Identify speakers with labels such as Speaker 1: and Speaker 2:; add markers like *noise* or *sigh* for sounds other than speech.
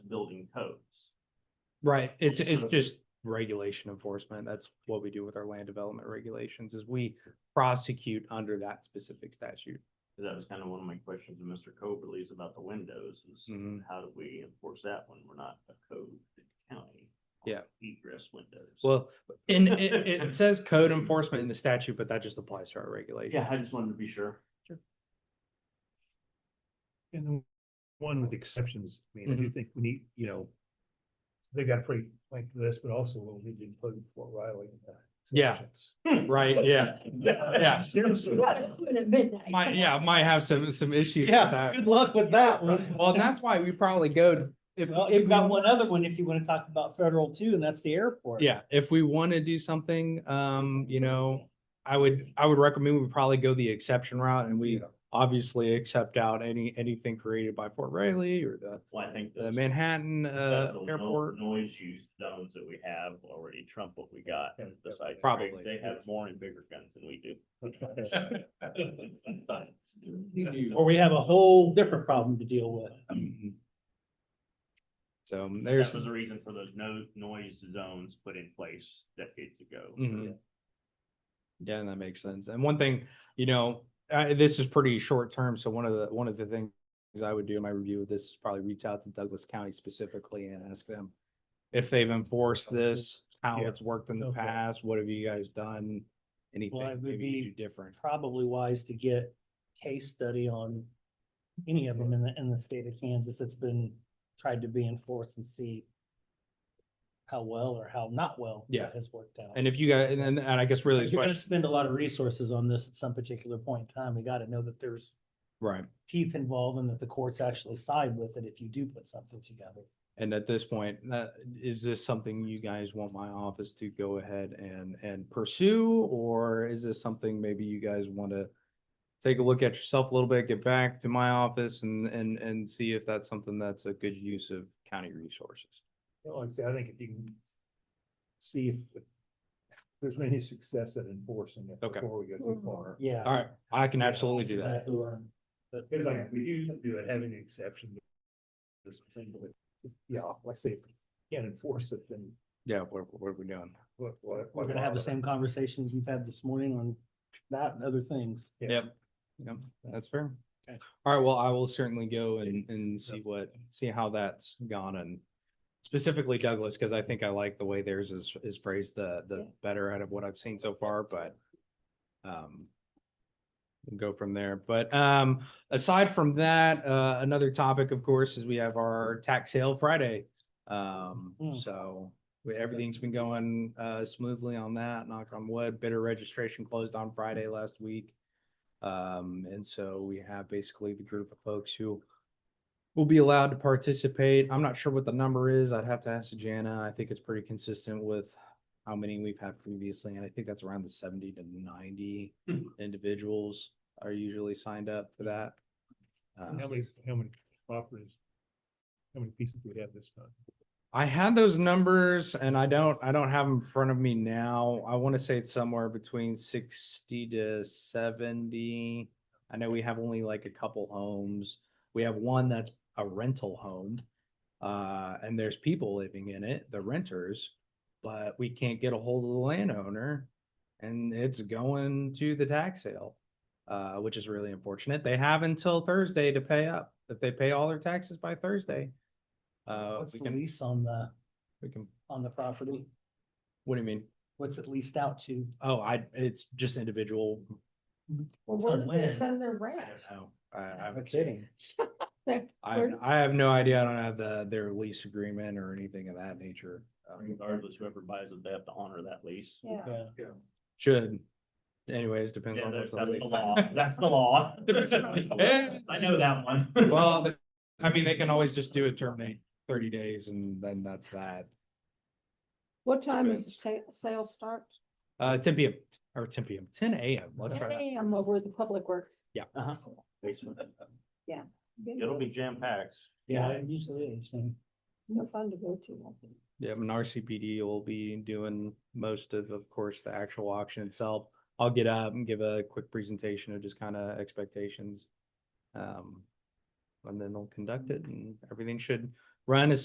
Speaker 1: building codes.
Speaker 2: Right, it's,
Speaker 1: Just
Speaker 2: it's
Speaker 1: sort of-
Speaker 2: just regulation enforcement, that's what we do with our land development regulations, is we prosecute under that specific statute.
Speaker 1: So That was kind of one of my questions to Mr. Coberly is about the windows is
Speaker 2: Mhm.
Speaker 1: how do we enforce that when we're not a code county? on
Speaker 2: Yeah.
Speaker 1: Egress windows.
Speaker 2: Well, and it, it says code enforcement in the statute, but that just applies to our regulation.
Speaker 1: Yeah, I just wanted to be sure.
Speaker 3: And the one with exceptions, I mean, I
Speaker 2: Mm-hmm.
Speaker 3: do think we need, you know. They got pretty like this, but also we'll need to include Fort Riley. in the
Speaker 2: Yeah.
Speaker 3: exceptions.
Speaker 2: Right, yeah, Yeah.
Speaker 3: *laughs* Seriously.
Speaker 2: might, yeah, might have some, some issues with
Speaker 4: Yeah,
Speaker 2: that.
Speaker 4: good luck with that one.
Speaker 2: Well, that's why we probably go, if,
Speaker 4: Well,
Speaker 2: if
Speaker 4: you've got one other one if you want to talk about federal too, and that's the airport.
Speaker 2: Yeah, if we want to do something, um, you know, I would, I would recommend we probably go the exception route and we
Speaker 3: *laughs* Yeah.
Speaker 2: obviously accept out any, anything created by Fort Riley or the,
Speaker 1: Well, I think.
Speaker 2: the
Speaker 1: those-
Speaker 2: Manhattan, uh,
Speaker 1: that the no-
Speaker 2: airport.
Speaker 1: Noise use zones that we have already trump what we got
Speaker 3: Yeah,
Speaker 1: besides.
Speaker 2: probably.
Speaker 1: They have more and bigger guns than we do.
Speaker 4: Or we have a whole different problem to deal with.
Speaker 2: So um,
Speaker 1: That
Speaker 2: there's,
Speaker 1: was the reason for those no noise zones put in place decades ago.
Speaker 2: Mhm. yeah, that makes sense. And one thing, you know, uh, this is pretty short term. So one of the, one of the things I would do in my review of this is probably reach out to Douglas County specifically and ask them if they've enforced this, how
Speaker 3: Yeah.
Speaker 2: it's worked in the
Speaker 3: Okay.
Speaker 2: past, what have you guys done?
Speaker 4: it
Speaker 2: Anything
Speaker 4: would
Speaker 2: maybe you
Speaker 4: be-
Speaker 2: do different.
Speaker 4: Probably wise to get case study on any of them in the, in the state of Kansas that's been tried to be enforced and see how well or how not well. that
Speaker 2: Yeah.
Speaker 4: Has worked out.
Speaker 2: And if you guys, and then, and I guess really the
Speaker 4: You're gonna
Speaker 2: question,
Speaker 4: spend a lot of resources on this at some particular point in time. We gotta know that there's
Speaker 2: right?
Speaker 4: teeth involved and that the courts actually side with it if you do put something together.
Speaker 2: And at this point, that, is this something you guys want my office to go ahead and, and pursue? Or is this something maybe you guys want to take a look at yourself a little bit, get back to my office and, and, and see if that's something that's a good use of county resources?
Speaker 3: Well, Like I said, I think if you can. See if. if There's any success at enforcing it
Speaker 2: Okay.
Speaker 3: before we go too far.
Speaker 4: Yeah.
Speaker 2: All right, I can
Speaker 3: Yeah,
Speaker 2: absolutely
Speaker 4: That's
Speaker 2: do that.
Speaker 4: exactly what I'm- Mm-hmm. but-
Speaker 3: It's like, if we do do it, having an exception. There's something, but, yeah, like I say, if you can't enforce it, then
Speaker 2: Yeah, what, what are we doing?
Speaker 3: what, what?
Speaker 4: We're gonna have the same conversations we've had this morning on that and other things.
Speaker 3: Yeah.
Speaker 2: Yep, yep, that's fair.
Speaker 4: Okay.
Speaker 2: All right, well, I will certainly go and, and see what, see how that's gone and specifically Douglas, because I think I like the way theirs is, is phrased the, the better out of what I've seen so far, but um, we'll go from there. But um, aside from that, uh, another topic, of course, is we have our tax sale Friday. Um,
Speaker 4: Mm.
Speaker 2: so we- everything's been going uh smoothly on that, knock on wood. Bidder registration closed on Friday last week. Um, and so we have basically the group of folks who will be allowed to participate. I'm not sure what the number is. I'd have to ask Jana. I think it's pretty consistent with how many we've had previously, and I think that's around the seventy to ninety individuals are usually signed up for that.
Speaker 3: And How
Speaker 2: Uh,
Speaker 3: many, how many properties? How many pieces do we have this time?
Speaker 2: I had those numbers and I don't, I don't have them in front of me now. I want to say it's somewhere between sixty to seventy. I know we have only like a couple homes. We have one that's a rental home. Uh, and there's people living in it, the renters, but we can't get a hold of the landowner. And it's going to the tax sale, uh, which is really unfortunate. They have until Thursday to pay up. If they pay all their taxes by Thursday. Uh,
Speaker 4: What's
Speaker 2: we
Speaker 4: the
Speaker 2: can,
Speaker 4: lease on the,
Speaker 2: we can,
Speaker 4: on the property?
Speaker 2: what do you mean?
Speaker 4: What's it leased out to?
Speaker 2: Oh, I, it's just individual.
Speaker 4: Till
Speaker 5: Well, where did they
Speaker 4: when?
Speaker 5: send their
Speaker 2: I
Speaker 5: rent?
Speaker 2: don't know. I, I,
Speaker 4: I'm kidding.
Speaker 2: I, I have no idea. I don't have the, their lease agreement or anything of that nature. Um,
Speaker 1: Regardless, whoever buys it, they have to honor that lease.
Speaker 5: Yeah.
Speaker 4: Yeah.
Speaker 2: Should. Anyways, depends
Speaker 1: Yeah,
Speaker 2: on
Speaker 1: that's
Speaker 2: what's
Speaker 1: that's the
Speaker 2: on lease.
Speaker 1: law. *laughs* That's the law. *laughs* I know that one.
Speaker 2: *laughs* Well, the- I mean, they can always just do a terminate thirty days and then that's that.
Speaker 5: What time is the ta- sale start?
Speaker 2: Uh, ten PM or ten PM, ten AM. Let's try that.
Speaker 5: I'm over at the Public Works.
Speaker 1: Uh-huh. *laughs* Basement. It'll be jam packed.
Speaker 4: Yeah, it usually is. and
Speaker 5: No fun to go to. I think.
Speaker 2: Yeah, and RCPD will be doing most of, of course, the actual auction itself. I'll get up and give a quick presentation of just kind of expectations. Um, and then they'll conduct it and everything should run as